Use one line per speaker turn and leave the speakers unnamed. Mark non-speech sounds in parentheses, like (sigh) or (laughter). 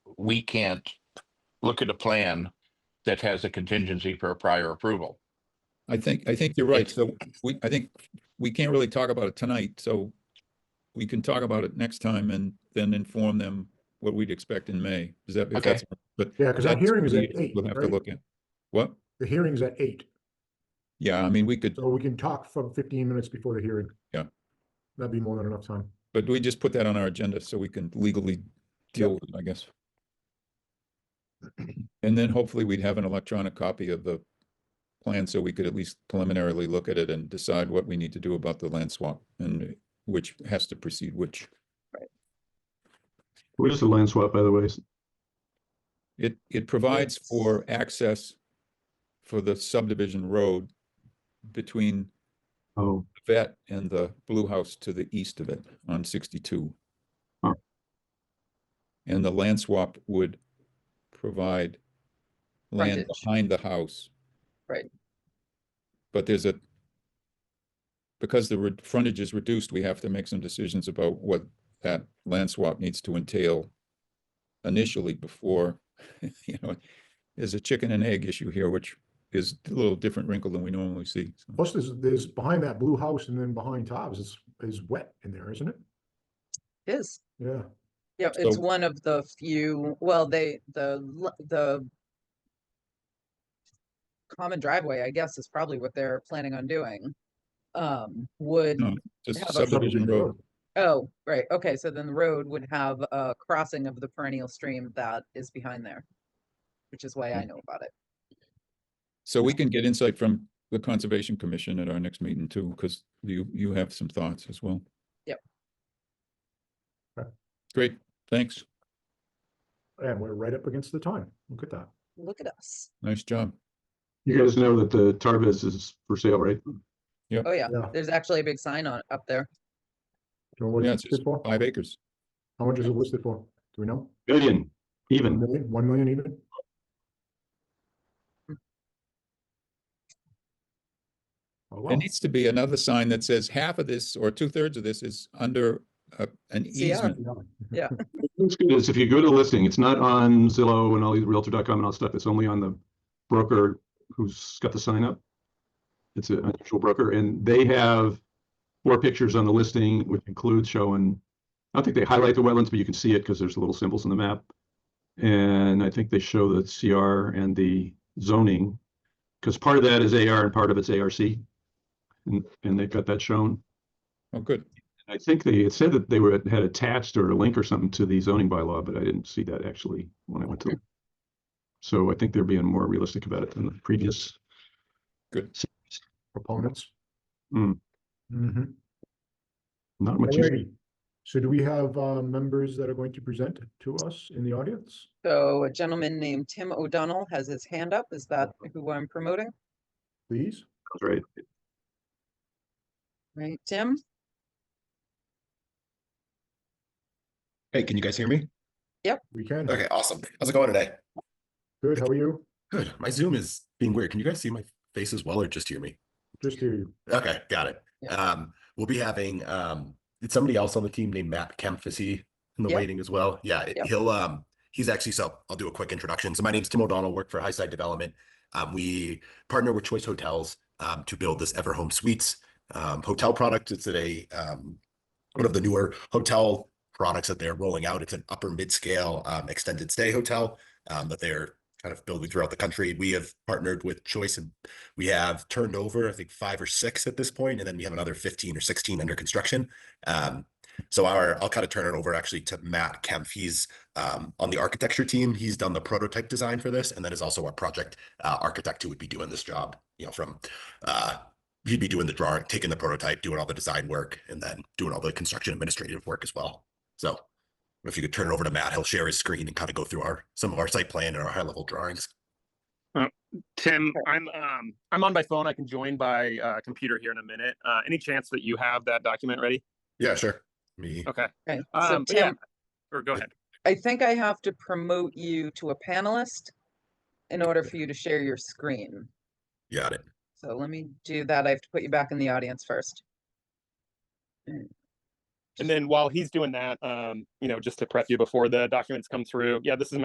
we can't look at a plan that has a contingency for a prior approval.
I think, I think you're right. So we, I think we can't really talk about it tonight, so we can talk about it next time and then inform them what we'd expect in May. Is that, if
Okay.
that's, but.
Yeah, 'cause that
that's
hearing is at
what we-
eight,
We'll have to
right?
look at. What?
The hearing's at eight,
Yeah, I mean, we could,
so we can talk from fifteen minutes before the hearing.
Yeah.
That'd be more than enough time.
but we just put that on our agenda so we can legally deal with it, I guess. And then hopefully we'd have an electronic copy of the plan so we could at least preliminarily look at it and decide what we need to do about the land swap and which has to precede which.
Where's the land swap, by the way?
It, it provides for access for the subdivision road between
Oh,
the vet and the blue house to the east of it on sixty-two.
Huh.
And the land swap would provide land
Frontage.
behind the house.
Right.
But there's a, because the re- frontage is reduced, we have to make some decisions about what that land swap needs to entail initially before, (laughs) you know, there's a chicken and egg issue here, which is a little different wrinkle than we normally see. so.
Plus, there's, there's behind that blue house and then behind Tops is, is wet in there, isn't it?
Is,
Yeah,
yeah, it's
So-
one of the few, well, they, the, l- the common driveway, I guess, is probably what they're planning on doing. Um, would,
No. Just
How about
subdivision road.
oh, right, okay, so then the road would have a crossing of the perennial stream that is behind there. Which is
Hmm.
why I know about it.
So we can get insight from the Conservation Commission at our next meeting too, because you, you have some thoughts as well.
Yep.
Okay.
Great, thanks.
and we're right up against the time. Look at that.
Look at us.
Nice job.
you guys know that the Tarvis is for sale, right?
Oh, yeah,
Yeah.
there's actually a big sign on, up there.
Do you know what
Yeah,
it's
it's just
listed for?
five acres.
How much is it listed for? Do we know?
Billion,
A
even.
million, one million even? Oh, wow.
There needs to be another sign that says half of this or two thirds of this is under uh, an
CR.
easement.
Yeah.
What's good is if you go to the listing, it's not on Zillow and all these Realtor.com and all that stuff. It's only on the broker who's got the sign up. It's an unusual broker and they have four pictures on the listing, which includes showing, I don't think they highlight the wetlands, but you can see it because there's little symbols on the map. And I think they show the CR and the zoning, because part of that is AR and part of it's ARC. And, and they've got that shown.
Oh, good.
I think they had said that they were, had attached or a link or something to the zoning bylaw, but I didn't see that actually when I went to. So I think they're being more realistic about it than the previous.
Proponents?
Hmm.
Mm-hmm.
Not much. use-
Alrighty, so do we have uh members that are going to present to us in the audience?
So a gentleman named Tim O'Donnell has his hand up. Is that who I'm promoting?
Please,
Right.
Right, Tim?
Hey, can you guys hear me?
we can.
Okay, awesome. How's it going today?
Good, how are you?
Good. My Zoom is being weird. Can you guys see my face as well or just hear me?
Just hear you.
Okay, got it.
Yeah.
Um, we'll be having um it's somebody else on the team named Matt Kempf. Is he in the
Yeah.
waiting as well? Yeah, it-
Yeah.
he'll um he's actually so I'll do a quick introduction. So my name's Tim O'Donnell, work for Highside Development. Um, we partner with Choice Hotels um to build this Everhome Suites um hotel product. It's a um one of the newer hotel products that they're rolling out. It's an upper mid-scale um extended stay hotel um that they're kind of building throughout the country. We have partnered with Choice and we have turned over, I think, five or six at this point, and then we have another 15 or 16 under construction. Um, so our, I'll kind of turn it over actually to Matt Kemp. He's um, on the architecture team. He's done the prototype design for this, and then is also our project uh, architect who would be doing this job. You know, from uh, he'd be doing the drawing, taking the prototype, doing all the design work, and then doing all the construction administrative work as well. So, if you could turn it over to Matt, he'll share his screen and kind of go through our some of our site plan and our high level drawings.
Tim, I'm um I'm on my phone. I can join by uh computer here in a minute. Uh any chance that you have that document ready?
Yeah, sure. Me.
Okay.
Okay, so
Um but yeah.
Tim,
Or go ahead.
I think I have to promote you to a panelist in order for you to share your screen.
Got it.
So let me do that. I have to put you back in the audience first.
And then while he's doing that, um, you know, just to prep you before the documents come through. Yeah, this is